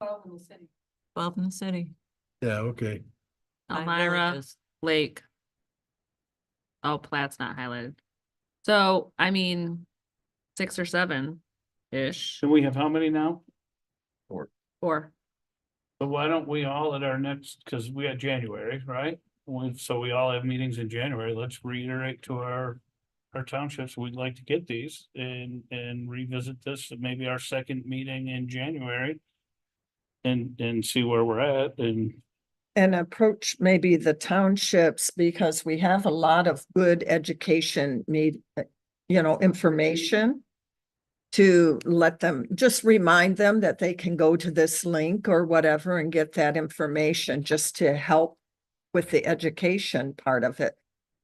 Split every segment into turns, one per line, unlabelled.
Twelve in the city.
twelve in the city.
Yeah, okay.
Nine
Elmira,
villages.
Lake. Oh, Platt's not highlighted. So, I mean, six or seven-ish,
So we have how many now?
or
But why don't we all at our next, because we had January, right? We- So we all have meetings in January. Let's reiterate to our, our townships, we'd like to get these and, and revisit this, at maybe our second meeting in January. And, and see where we're at and
and approach maybe the townships because we have a lot of good education need, you know, information to let them, just remind them that they can go to this link or whatever and get that information just to help with the education part of it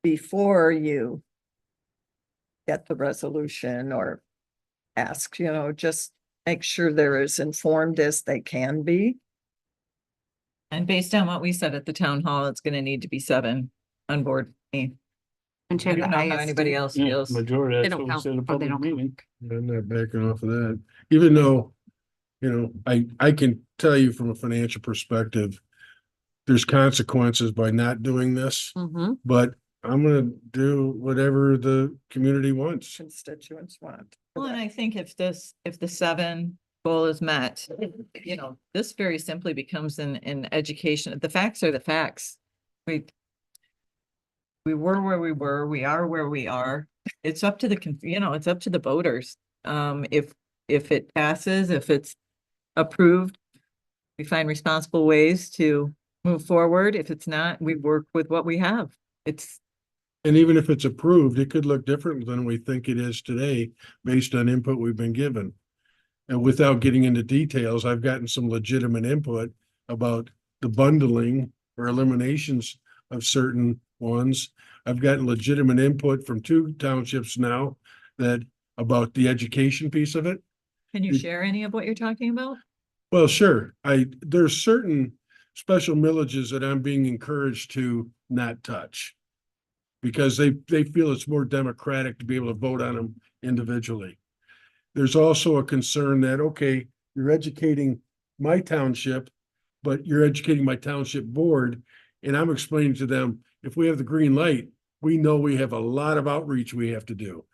before you get the resolution or ask, you know, just make sure they're as informed as they can be.
And based on what we said at the town hall, it's gonna need to be seven on board me.
And
I
check
don't know how anybody else
you know,
feels.
majority,
They don't
that's what we
count,
said, a
or they
public
don't
meeting.
I'm not backing off of that, even though, you know, I, I can tell you from a financial perspective, there's consequences by not doing this,
Mm-hmm,
but I'm gonna do whatever the community wants.
constituents want.
Well, and I think if this, if the seven goal is met, you know, this very simply becomes an, an education. The facts are the facts. We we were where we were, we are where we are. It's up to the, con- you know, it's up to the voters. Um, if, if it passes, if it's approved, we find responsible ways to move forward. If it's not, we work with what we have. It's,
And even if it's approved, it could look different than we think it is today, based on input we've been given. And without getting into details, I've gotten some legitimate input about the bundling or eliminations of certain ones. I've gotten legitimate input from two townships now that, about the education piece of it.
can you
It-
share any of what you're talking about?
Well, sure, I, there's certain special millages that I'm being encouraged to not touch. Because they, they feel it's more democratic to be able to vote on them individually. There's also a concern that, okay, you're educating my township, but you're educating my township board. And I'm explaining to them, if we have the green light, we know we have a lot of outreach we have to do.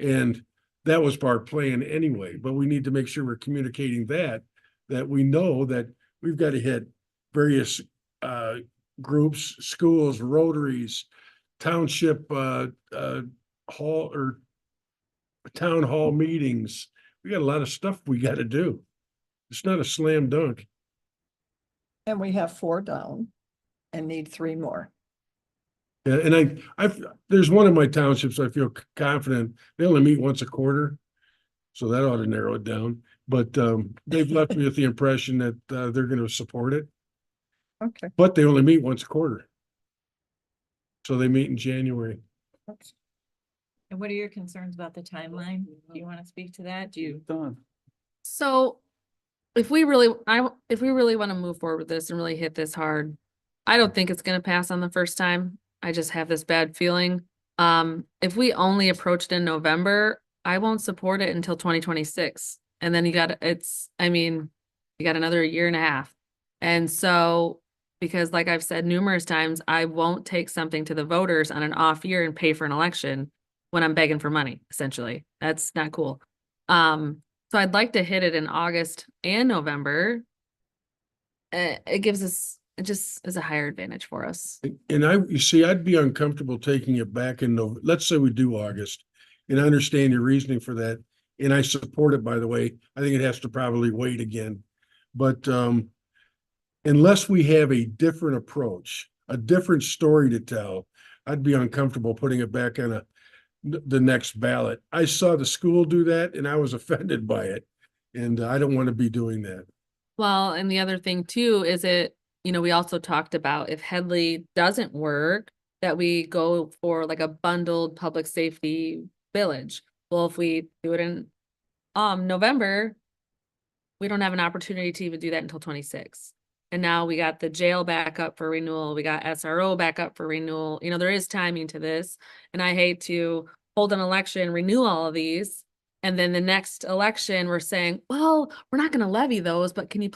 And that was part of plan anyway, but we need to make sure we're communicating that that we know that we've got to hit various uh groups, schools, rotaries, township uh uh hall or town hall meetings. We got a lot of stuff we got to do. It's not a slam dunk.
And we have four down and need three more.
Yeah, and I, I've, there's one of my townships, I feel c- confident, they only meet once a quarter. So that ought to narrow it down, but um, they've left me with the impression that uh, they're gonna support it.
Okay.
But they only meet once a quarter. So they meet in January.
And what are your concerns about the timeline? Do you want to speak to that? Do you?
Done.
so if we really, I, w- if we really wanna move forward with this and really hit this hard, I don't think it's gonna pass on the first time. I just have this bad feeling. Um, if we only approached in November, I won't support it until twenty twenty-six. And then you got, it's, I mean, you got another year and a half. And so, because like I've said numerous times, I won't take something to the voters on an off year and pay for an election when I'm begging for money, essentially. That's not cool. Um, so I'd like to hit it in August and November. Uh, it gives us, it just is a higher advantage for us.
And I, you see, I'd be uncomfortable taking it back in, Nov- let's say we do August. And I understand your reasoning for that, and I support it, by the way. I think it has to probably wait again. But um, unless we have a different approach, a different story to tell, I'd be uncomfortable putting it back on a, the next ballot. I saw the school do that and I was offended by it. And I don't want to be doing that.
Well, and the other thing too is it, you know, we also talked about if Headley doesn't work, that we go for like a bundled public safety village. Well, if we do it in um November, we don't have an opportunity to even do that until twenty-six. And now we got the jail back up for renewal, we got SRO back up for renewal, you know, there is timing to this. And I hate to hold an election, renew all of these, and then the next election, we're saying, well, we're not gonna levy those, but can you